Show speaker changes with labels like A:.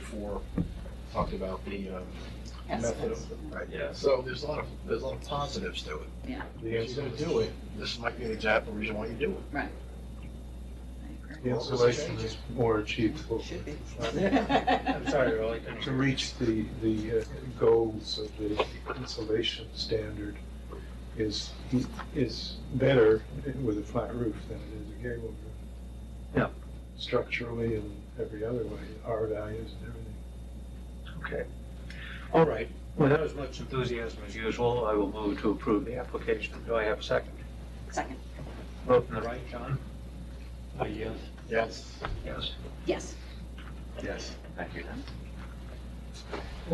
A: before, talked about the, um, method
B: aspects.
A: of, right?
C: Yeah.
A: So there's a lot of, there's a lot of positives to it.
B: Yeah.
A: If you're gonna do it, this might be an example reason why you do it.
B: I agree.
D: The insulation is more achievable
B: Should be.
C: I'm sorry, Earl, I couldn't.
D: to reach the, the uh, goals of the insulation standard is, is better with a flat roof than it is a gable roof.
C: Yeah.
D: Structurally and every other way, R values and everything.
C: Okay. All right. Without as much enthusiasm as usual, I will move to approve the application. Do I have a second?
B: Second,
C: Vote in the right, John? yes.
A: Yes.
C: Yes.
B: yes.
C: Yes. Thank you.